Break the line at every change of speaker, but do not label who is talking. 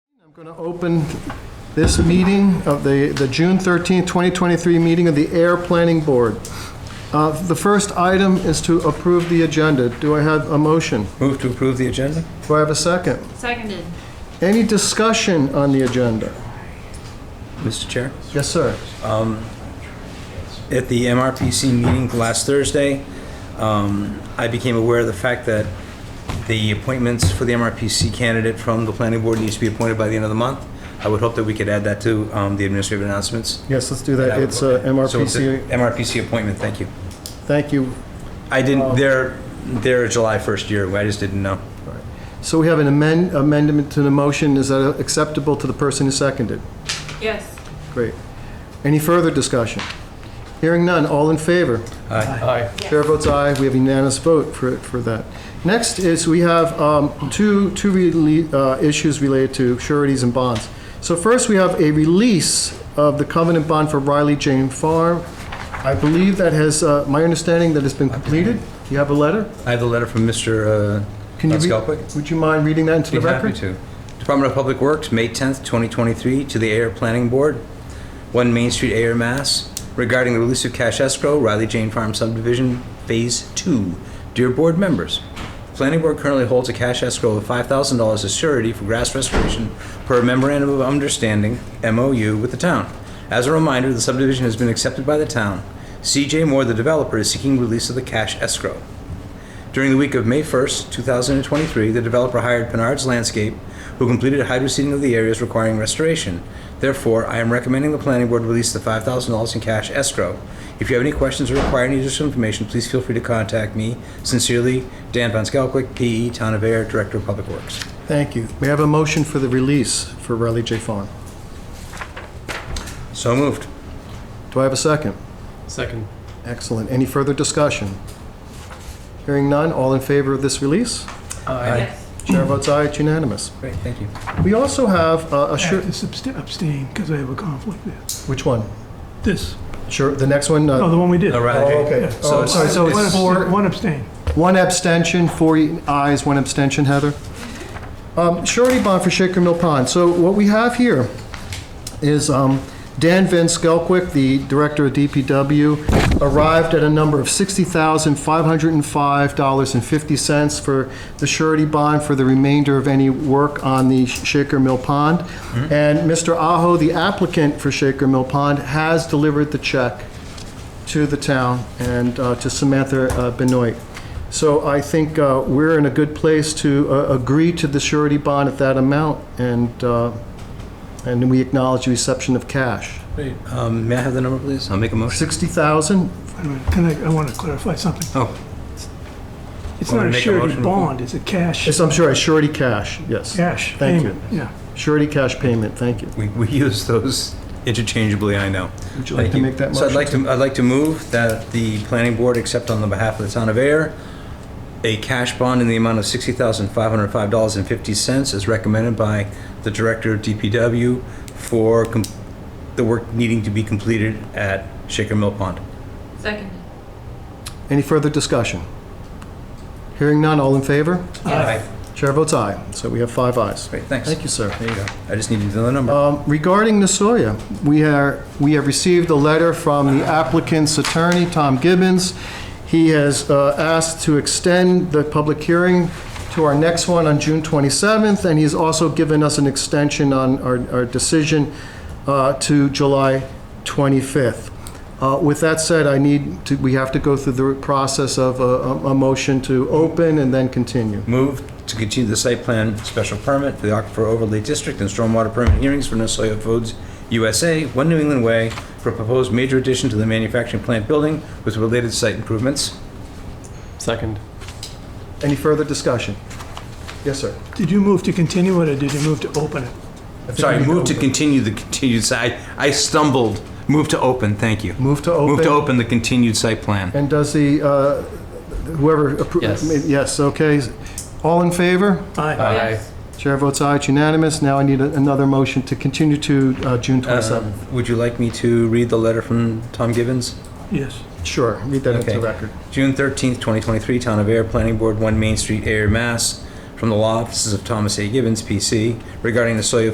I'm going to open this meeting of the, the June 13th, 2023 meeting of the Air Planning Board. Uh, The first item is to approve the agenda. Do I have a motion?
Move to approve the agenda?
Do I have a second?
Seconded.
Any discussion on the agenda?
Mr. Chair?
Yes, sir.
At the MRPC meeting last Thursday, um, I became aware of the fact that the appointments for the MRPC candidate from the planning board needs to be appointed by the end of the month. I would hope that we could add that to um, the administrative announcements.
Yes, let's do that. It's uh,
So it's
MRPC.
an MRPC appointment, thank you.
Thank you.
I didn't, they're, they're July 1st year, I just didn't know.
So we have an amend- amendment to the motion. Is that acceptable to the person who seconded?
Yes.
Great. Any further discussion? Hearing none. All in favor?
Aye.
Chair votes aye, we have unanimous vote for, for that. Next is, we have um, two, two rele- uh, issues related to sureties and bonds. So first, we have a release of the covenant bond for Riley Jane Farm. I believe that has, uh, my understanding that has been completed. You have a letter?
I have the letter from uh, Mr.
Can you read-
Skelpik.
Would you mind reading that into the
Be
record?
happy to. Department of Public Works, May 10th, 2023, to the Air Planning Board, 1 Main Street, Air, Mass. Regarding the release of cash escrow, Riley Jane Farm subdivision, Phase 2. Dear Board members, the Planning Board currently holds a cash escrow of $5,000 as surety for grass restoration per a memorandum of understanding, MOU, with the town. As a reminder, the subdivision has been accepted by the town. CJ Moore, the developer, is seeking release of the cash escrow. During the week of May 1st, 2023, the developer hired Penard's Landscape, who completed hydro seeding of the areas requiring restoration. Therefore, I am recommending the planning board release the $5,000 in cash escrow. If you have any questions or require any additional information, please feel free to contact me. Sincerely, Dan Von Skalkwyk, PE, E, Town of Air, Director of Public Works.
Thank you. We have a motion for the release for Riley J. Farm.
So moved.
Do I have a second?
Second.
Excellent. Any further discussion? Hearing none, all in favor of this release?
Yes.
Chair votes aye, it's unanimous.
Great, thank you.
We also have uh, a
I have
sure,
to subst- abstain because I have a conflict there.
which one?
This,
Sure, the next one,
no,
uh,
the one we did.
No, Riley
Oh,
Jane.
okay.
So
Oh, I'm sorry,
it's-
so
One
it's
it's-
four-
abstain, one abstain.
one abstention, four ayes, one abstention, Heather. Um, Surety bond for Shaker Mill Pond. So what we have here is um, Dan Van Skelquick, the director of DPW, arrived at a number of $60,505.50 for the surety bond for the remainder of any work on the Shaker Mill Pond. And Mr. Aho, the applicant for Shaker Mill Pond, has delivered the check to the town and uh, to Samantha uh, Benoit. So I think uh, we're in a good place to uh, agree to the surety bond at that amount, and, uh, and we acknowledge the reception of cash.
Um, May I have the number, please? I'll make a motion.
60,000?
Wait a minute, Can I, I want to clarify something.
Oh,
It's
Want
not
me to make
a
a
surety
motion?
bond, it's a cash,
Yes, I'm sorry, surety cash, yes.
cash
Thank you.
payment. Yeah,
Surety cash payment, thank you.
We, we use those interchangeably, I know. Would
you like to make that
So I'd
motion?
like to, I'd like to move that the planning board accept on the behalf of the town of Air a cash bond in the amount of $60,505.50 as recommended by the director of DPW for com- the work needing to be completed at Shaker Mill Pond.
Seconded.
Any further discussion? Hearing none, all in favor?
Aye.
Chair votes aye, so we have five ayes.
Great, thanks.
Thank you, sir.
There you go. I just needed another number.
Um, Regarding Nasoya, we are, we have received a letter from the applicant's attorney, Tom Gibbons. He has uh, asked to extend the public hearing to our next one on June 27th, and he's also given us an extension on our, our decision uh, to July 25th. Uh, With that said, I need to, we have to go through the process of a, a- a motion to open and then continue.
Move to continue the site plan special permit for the Aquifer Overlay District and stormwater permit hearings for Nussoi Foods USA, One New England Way, for a proposed major addition to the manufacturing plant building with related site improvements.
Second.
Any further discussion? Yes, sir.
did you move to continue it or did you move to open it?
Sorry, move to continue the continued site, I stumbled. Move to open, thank you.
Move to open.
Move to open the continued site plan.
And does the, uh, whoever, appro-
Yes.
yes, okay. All in favor?
Aye.
Yes.
Chair votes aye, it's unanimous. Now I need a- another motion to continue to uh, June 27th.
Would you like me to read the letter from Tom Gibbons?
Yes,
Sure, read that into
Okay.
the record.
June 13th, 2023, Town of Air Planning Board, 1 Main Street, Air, Mass. From the law offices of Thomas A. Gibbons, PC, regarding the Soya